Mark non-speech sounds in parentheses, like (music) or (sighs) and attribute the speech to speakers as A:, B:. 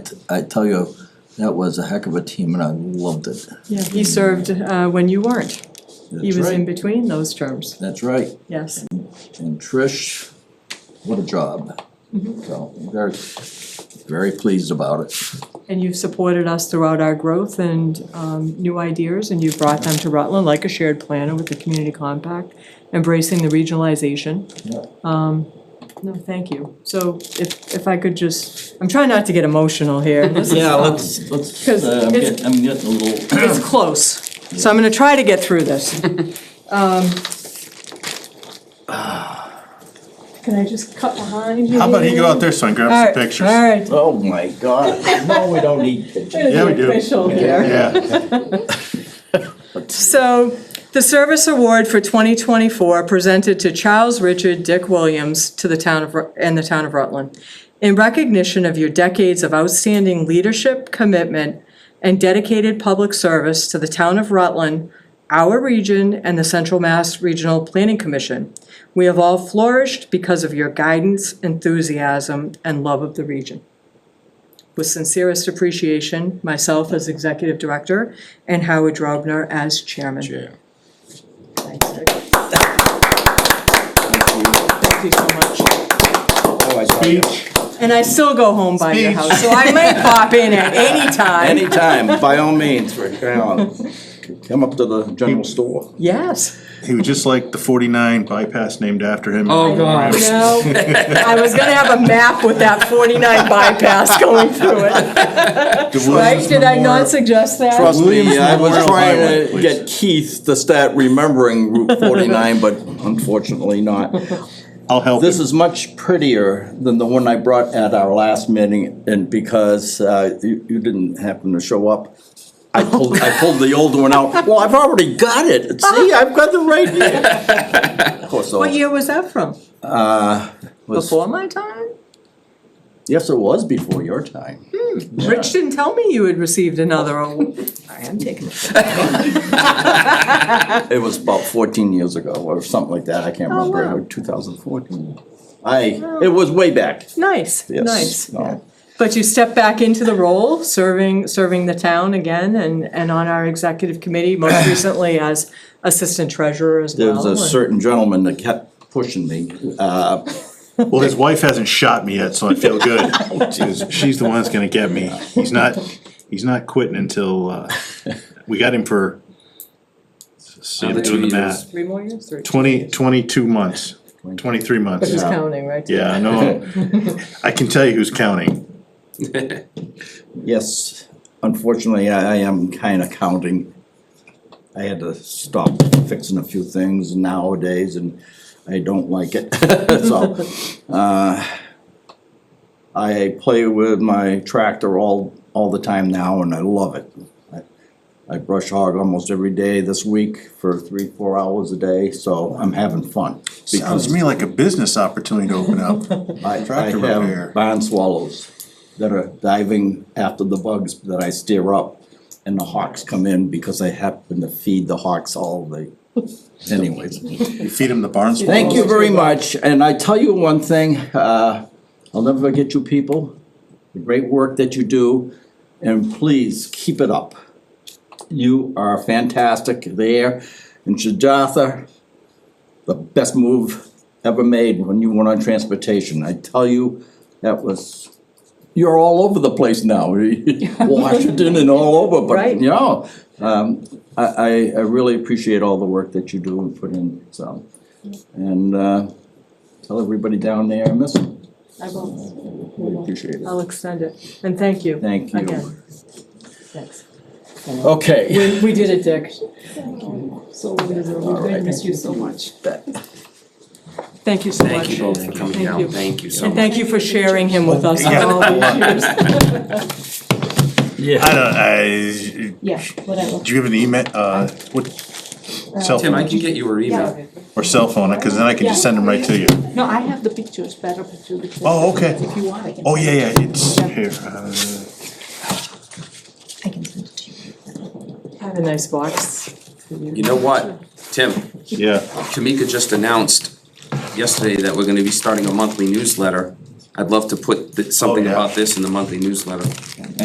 A: I tell you, that was a heck of a team and I loved it.
B: Yeah, he served uh, when you weren't. He
A: That's
B: was
A: right.
B: in between those terms,
A: That's right,
B: yes.
A: and Trish, what a job.
B: Mm-hmm.
A: So, very, very pleased about it.
B: And you've supported us throughout our growth and um, new ideas, and you've brought them to Rutland like a shared planner with the community compact, embracing the regionalization.
A: Yeah.
B: Um, No, thank you. So if, if I could just, I'm trying not to get emotional (laughs) here. This is-
A: Yeah, let's, let's,
B: Because
A: uh, I'm
B: it's-
A: getting, I'm getting a little,
B: It's close, so I'm gonna try to get through (laughs) this.
C: (sighs)
B: Um, Can I just cut behind you?
C: How about he go out there, son, grab
B: All
C: some
B: right, all
C: pictures?
B: right.
A: oh my god, no, we don't need
B: Gonna
A: pictures.
B: be
C: Yeah, we do.
B: Official here.
C: Yeah,
B: So, the service award for 2024 presented to Charles Richard Dick Williams to the town of, Ru- and the town of Rutland. In recognition of your decades of outstanding leadership, commitment, and dedicated public service to the town of Rutland, our region, and the Central Mass Regional Planning Commission. We have all flourished because of your guidance, enthusiasm, and love of the region. With sincerest appreciation, myself as Executive Director and Howard Drobner as Chairman. Thanks, Dick. Thank you so much.
C: speech,
B: And I still go home by your
C: Speech.
B: house, so I might pop in (laughs) at any time.
D: Anytime, by all means, Rick, come come up to the general store.
B: Yes.
C: he was just like the forty-nine bypass named after him.
E: Oh, God.
B: You know, I was gonna have a map with that forty-nine bypass going through it, right? Did I not suggest that?
D: Trust me,
C: Williams
D: I was
C: Memorial Highway,
D: trying to
C: please.
D: get Keith to start remembering Route forty-nine, but unfortunately not.
C: I'll help
D: This
C: him.
D: is much prettier than the one I brought at our last meeting, and because uh, you you didn't happen to show up, I pulled, I pulled the old one out. Well, I've already got it. See, I've got the right here. Of course,
B: What
D: it
B: year was that from?
D: was-
B: Before my time?
D: Yes, it was before your time.
B: Hmm. Rich didn't tell me you had received (laughs) another award. I am taking it.
D: It was about fourteen years ago or something like that, I can't
B: Oh, wow. Oh.
D: remember, two thousand fourteen. I, it was way back,
B: Nice,
D: yes.
B: nice.
D: No.
B: But you step back into the role, serving, serving the town again and, and on our executive committee, most recently as assistant treasurer as
D: There
B: well.
D: was a
B: and-
D: certain gentleman that kept pushing me, uh,
C: Well, his wife hasn't shot me yet, so I feel (laughs) good. 'Cause She's the one that's gonna get me. He's not, he's not quitting until, uh, we got him for, see, I'm
E: Another two
C: doing the
E: years.
C: math.
B: Three more years, three?
C: Twenty, twenty-two months, twenty-three months.
B: Just counting, right?
C: Yeah, I know. I can tell you who's counting.
D: yes, unfortunately, I, I am kinda counting. I had to stop fixing a few things nowadays and I don't like it, (laughs) so, uh, I play with my tractor all, all the time now and I love it. I brush hog almost every day this week for three, four hours a day, so I'm having fun.
C: Sounds to me like a business opportunity to open up.
D: I, I
C: tractor repair.
D: have barn swallows that are diving after the bugs that I steer up. And the hawks come in because I happen to feed the hawks all the, anyways.
C: You feed him the barn swallow.
D: Thank you very much, and I tell you one thing, uh, I'll never forget you people, the great work that you do, and please, keep it up. You are fantastic there, and Shadatha, the best move ever made when you went on transportation, I tell you, that was, you're all over the place now, (laughs) Washington and all over,
B: Right.
D: but, you know, um, I, I, I really appreciate all the work that you do and put in, so. And uh, tell everybody down there, I miss them.
B: I will,
D: We appreciate it.
B: I'll extend it, and thank you.
D: Thank you.
B: Again. Thanks.
D: Okay.
B: We, we did it, Dick. So, we
D: right.
B: miss you so much. Thank you so much.
E: Thank you both for coming
B: Thank
E: down,
B: you.
E: thank you so
B: And
E: much.
B: thank you for sharing him with us for all these years.
C: I don't, I,
F: Yeah, whatever.
C: do you have an email, uh, what, cell
E: Tim, I
C: phone
E: can get you her email.
F: Yeah.
C: or cell phone, cause then I can just send them right to you.
F: No, I have the pictures, better picture. because
C: Oh, okay.
F: If you want, I can.
C: Oh,
F: send
C: yeah,
F: it.
C: yeah, it's here, uh,
F: I can send it to you.
B: Have a nice box for
E: You know what, Tim,
C: yeah,
E: Kamika just announced yesterday that we're gonna be starting a monthly newsletter. I'd love to put th- something
C: yeah.
E: about this in the monthly newsletter.